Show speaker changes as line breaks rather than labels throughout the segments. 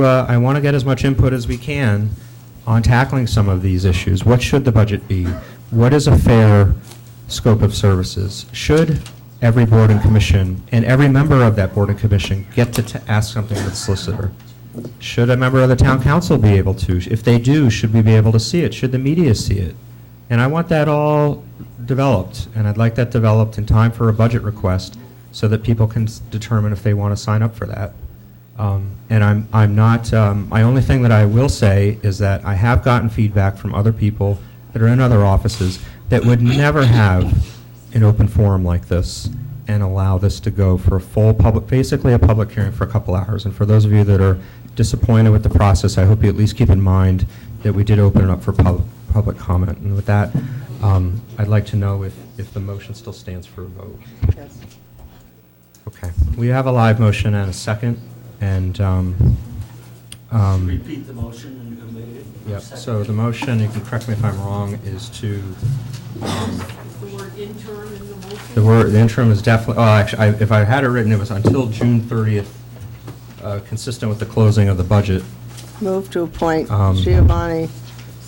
uh, I want to get as much input as we can on tackling some of these issues. What should the budget be? What is a fair scope of services? Should every board and commission, and every member of that board and commission, get to t- ask something of the solicitor? Should a member of the town council be able to? If they do, should we be able to see it? Should the media see it? And I want that all developed, and I'd like that developed in time for a budget request so that people can s- determine if they want to sign up for that. Um, And I'm, I'm not, um, my only thing that I will say is that I have gotten feedback from other people that are in other offices that would never have an open forum like this and allow this to go for a full public, basically a public hearing for a couple hours. And for those of you that are disappointed with the process, I hope you at least keep in mind that we did open it up for pub- public comment. And with that, um, I'd like to know if, if the motion still stands for a vote.
Yes.
Okay. We have a live motion and a second, and, um, um,
Repeat the motion and you made it.
yeah, so the motion, you can correct me if I'm wrong, is to, um,
The word interim in the motion.
the word, the interim is definitely, oh, actually, I- if I had it written, it was until June 30th, uh, consistent with the closing of the budget.
Move to appoint
Um,
Giovanni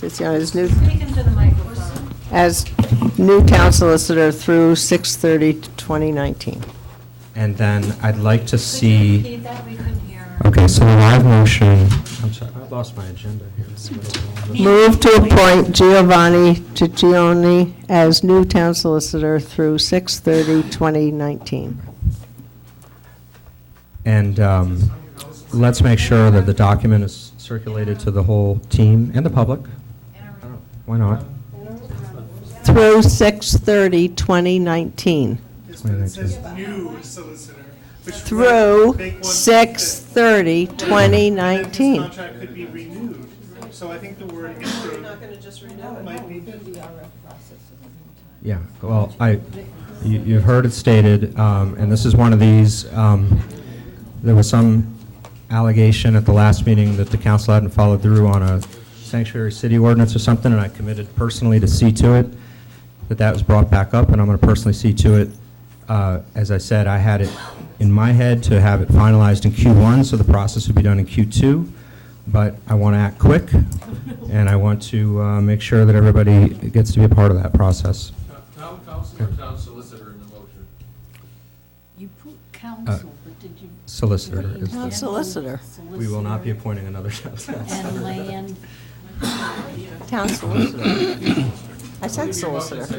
Tiziano as new,
Speak into the microphone.
as new town solicitor through 6/30/2019.
And then I'd like to
Could you
see.
repeat that? We couldn't hear.
Okay, so the live motion. I'm sorry, I lost my agenda here.
Move to appoint Giovanni Tiziano as new town solicitor through 6/30/2019.
And um, let's make sure that the document is circulated to the whole team and the public. Why not?
Through 6/30/2019.
Yes, but it says new solicitor. which would
Through
make one think that
6/30/2019.
This contract could be renewed, so I think the word interim might be.
Yeah, well, I, you- you've heard it stated, um, and this is one of these, um, there was some allegation at the last meeting that the council hadn't followed through on a sanctuary city ordinance or something, and I committed personally to see to it, that that was brought back up, and I'm going to personally see to it. Uh, As I said, I had it in my head to have it finalized in Q1, so the process would be done in Q2, but I want to act quick, and I want to uh, make sure that everybody gets to be a part of that process.
Town council or town solicitor in the motion?
You put council, but did you?
Uh, solicitor
put
is the-
general
Solicitor.
We will not be
solicitor
appointing another town
And
solicitor.
land
Town solicitor. I said solicitor.
as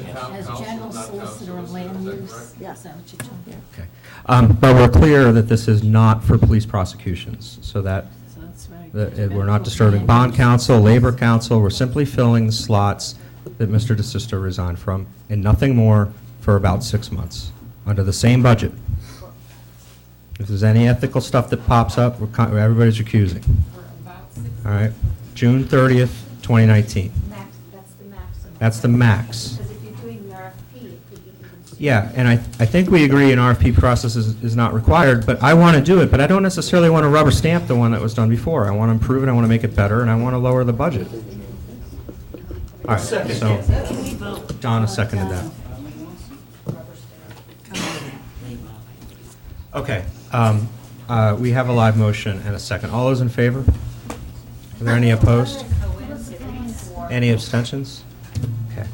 general solicitor and land use, is
Yeah.
that what you're talking about?
Okay. Um, But we're clear that this is not for police prosecutions, so that,
So that's right.
that it- eh, we're not disturbing bond counsel, labor counsel, we're simply filling the slots that Mr. DeSisto resigned from, and nothing more for about six months, under the same budget. If there's any ethical stuff that pops up, we're con- everybody's recusing. All right? June 30th, 2019.
Max, that's the maximum.
That's the max.
Because if you're doing the RFP, it could be even.
Yeah, and I, I think we agree an RFP process is, is not required, but I want to do it, but I don't necessarily want to rubber stamp the one that was done before. I want to improve it, I want to make it better, and I want to lower the budget. All right, so Donna seconded that. Okay, um, uh, we have a live motion and a second. All those in favor? Are there any opposed? Any abstentions? Okay.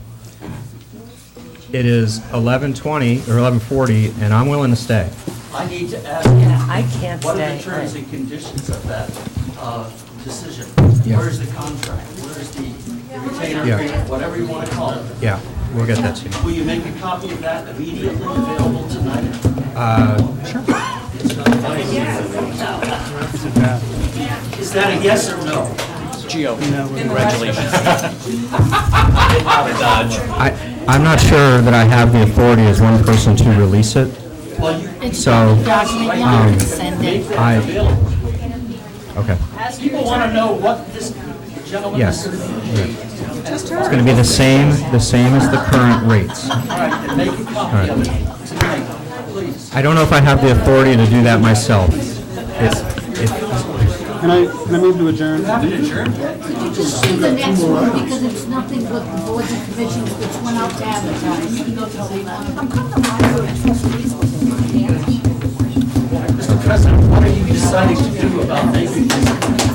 It is 11:20 or 11:40, and I'm willing to stay.
I need to ask you,
I can't
what are the
stay.
terms and conditions of that uh, decision?
Yeah.
Where's the contract? Where's the retainer
Yeah.
agreement, whatever you want to call it?
Yeah, we'll get that to you.
Will you make a copy of that immediately available tonight?
Uh,
Is that a yes or no?
I, I'm not sure that I have the authority as one person to release it,
Well, you
so,
Document you
um,
can send
make
it.
I-
that available.
okay,
People want to know what this gentleman
yes.
is
yeah.
doing.
It's going to be the same, the same as the current rates.
All right, then make a copy of it tonight, please.
I don't know if I have the authority to do that myself. If- if-
Can I, can I move to adjourn?
Could you just do the next one, because it's nothing but the boards and commissions which went out to advertise. You can go to the one.
Mr. President, what are you saying? deciding to do about making this